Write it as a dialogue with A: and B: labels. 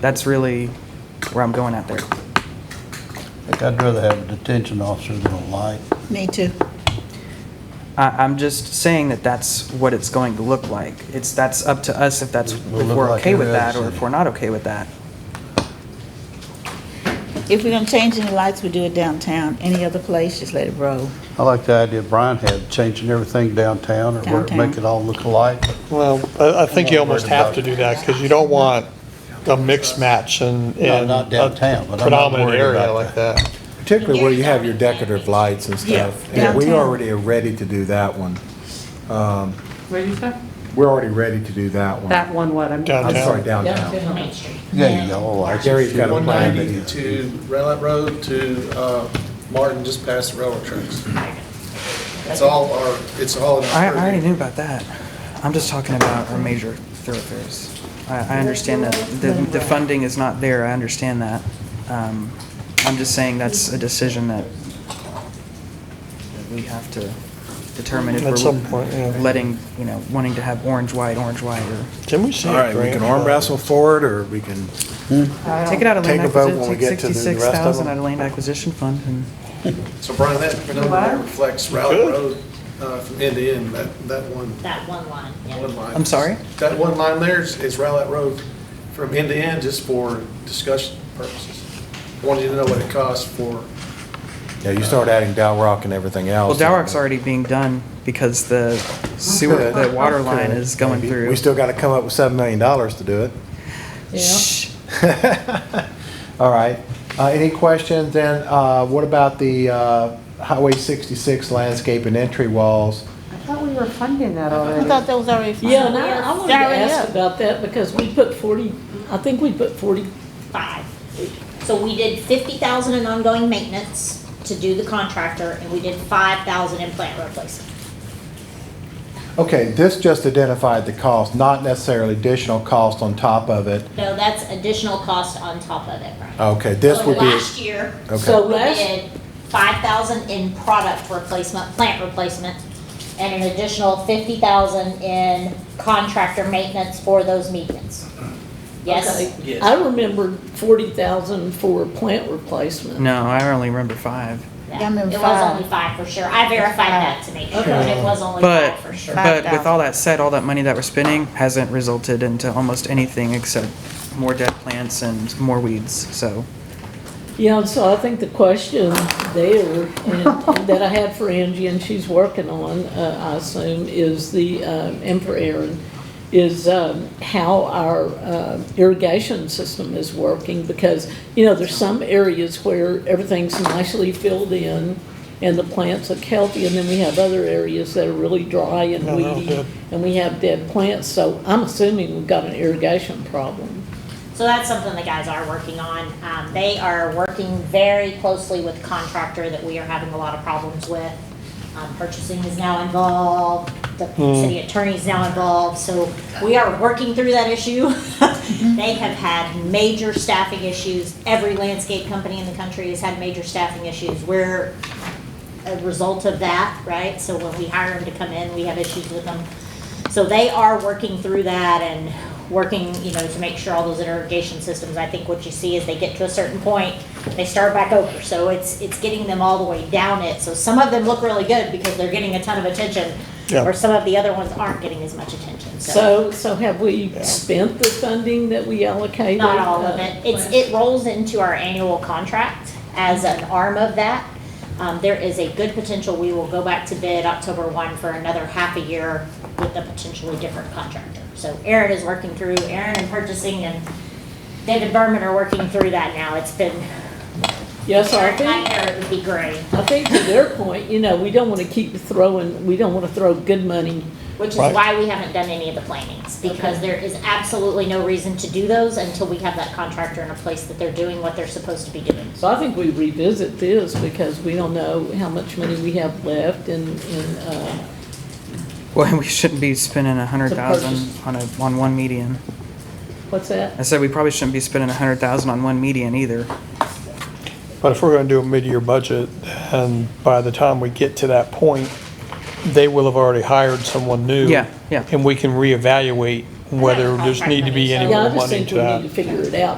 A: That's really where I'm going at there.
B: I think I'd rather have a detention officer than a light.
C: Me too.
A: I, I'm just saying that that's what it's going to look like. It's, that's up to us if that's, if
B: Will look
A: we're
B: like
A: okay with
B: every
A: that
B: other
A: or if
B: city.
A: we're not okay with that.
C: If we're gonna change any lights, we do it downtown. Any other place, just let it roll.
B: I like the idea Brian had, changing everything downtown or where it make
C: Downtown.
B: it all look alike.
D: Well, I, I think you almost have to do that, because you don't want a mix match in,
B: No,
D: in
B: not downtown,
D: a
B: but I'm not
D: predominant
B: worried
D: area
B: about
D: like that.
E: Particularly where you have your decorative lights and
C: Yeah,
E: stuff. And we
C: downtown.
E: already are ready to do that one. Um,
F: What did you say?
E: We're already ready to do that one.
F: That one, what? I'm-
D: Downtown.
E: I'm sorry, downtown.
G: Main Street.
B: Yeah, you go, like.
E: Gary's got a plan. that he-
H: 190 to Railroad Road to uh, Martin, just past the railroad tracks. It's all our, it's all. in our
A: I, I already
H: purview.
A: knew about that. I'm just talking about our major thoroughfares. I, I understand that the, the funding is not there, I understand that. Um, I'm just saying that's a decision that that we have to determine if
D: At some
A: we're
D: point, yeah.
A: letting, you know, wanting to have orange, white, orange, white, or
D: Can we see?
E: All
D: a
E: right, we
D: grant
E: can
D: for
E: arm
D: that?
E: wrestle forward, or we can,
A: take it out of
D: Take
A: land
D: a vote when we
A: acquisition,
D: get to the
A: sixty-six
D: rest of
A: thousand
D: them.
A: out of land acquisition fund and.
H: So Brian, that number there reflects
D: Good.
H: Railroad Road uh, from end to end, that, that one,
G: That one line,
H: one
G: yeah.
H: line.
A: I'm sorry?
H: That one line there is is Railroad Road from end to end, just for discussion purposes. I Wanted you to know what it costs for,
E: yeah, you start adding Dalrock and everything
A: Well,
E: else.
A: Dowark's already being done because the sewer, the water line is going
E: Maybe.
A: through.
E: We still got to come up with $7 million to do it.
A: Shh.
E: All right. Uh, Any questions? And uh, what about the uh, Highway 66 landscape and entry walls?
F: I thought we were funding that
C: I
F: already.
C: thought that was already.
G: Yeah, and I, I wanted to
C: Sorry, yeah.
G: ask about that because we put forty, I think we put forty-five.
I: So we did fifty thousand in ongoing maintenance to do the contractor, and we did five thousand in plant replacement.
E: Okay, this just identified the cost, not necessarily additional cost on top of it.
I: No, that's additional cost on top of it, Brian.
E: Okay, this
I: So
E: would be,
I: Last year,
E: okay,
G: So
I: we
G: last-
I: did five thousand in product replacement, plant replacement, and an additional fifty thousand in contractor maintenance for those medians. Yes?
G: Okay. I remembered forty thousand for plant replacement.
A: No, I only remember five.
I: Yeah,
C: Yeah, I mean,
I: It
C: five.
I: was only five for sure. I verified that to make sure, it was only
A: But,
I: five for sure.
A: but with all that said, all that money that we're spending hasn't resulted into almost anything except more dead plants and more weeds, so.
G: Yeah, and so I think the question there and- that I had for Angie and she's working on, uh, I assume, is the, um, and for Aaron, is um, how our uh, irrigation system is working because, you know, there's some areas where everything's nicely filled in and the plants look healthy and then we have other areas that are really dry and
D: No, no,
G: weedy
D: dead.
G: and we have dead plants. So I'm assuming we've got an irrigation problem.
I: So that's something the guys are working on. Um, they are working very closely with contractor that we are having a lot of problems with. Um, purchasing is now involved, the
G: Mm.
I: city attorney is now involved, so we are working through that issue. They have had major staffing issues. Every landscape company in the country has had major staffing issues. We're a result of that, right? So when we hire them to come in, we have issues with them. So they are working through that and working, you know, to make sure all those irrigation systems, I think what you see is they get to a certain point, they start back over. So it's, it's getting them all the way down it. So some of them look really good because they're getting a ton of attention.
D: Yeah.
I: Or some of the other ones aren't getting as much attention,
G: So, so have we spent the funding that we allocated?
I: Not all of
G: Uh,
I: it. It's, it rolls into our annual contract as an arm of that. Um, there is a good potential, we will go back to bid October one for another half a year with a potentially different contractor. So Aaron is working through, Aaron and purchasing and David Berman are working through that now. It's been,
G: Uh, Yes, I
I: Aaron,
G: think,
I: Aaron would be great,
G: I think to their point, you know, we don't want to keep throwing, we don't want to throw good money.
I: which is
D: Right.
I: why we haven't done any of the plannings. Because there is absolutely no reason to do those until we have that contractor in a place that they're doing what they're supposed to be doing.
G: So I think we revisit this because we don't know how much money we have left and, and, uh,
A: Well, we shouldn't be spending a hundred
G: To
A: thousand
G: purchase.
A: on a, on one median.
G: what's
A: I
G: that?
A: said we probably shouldn't be spending a hundred thousand on one median either.
D: But if we're gonna do a mid-year budget, and by the time we get to that point, they will have already hired someone new.
A: Yeah, yeah.
D: And we can reevaluate whether there's need to be any
G: Yeah,
D: more
G: I just
D: money
G: think
D: to
G: we
D: that.
G: need to figure it out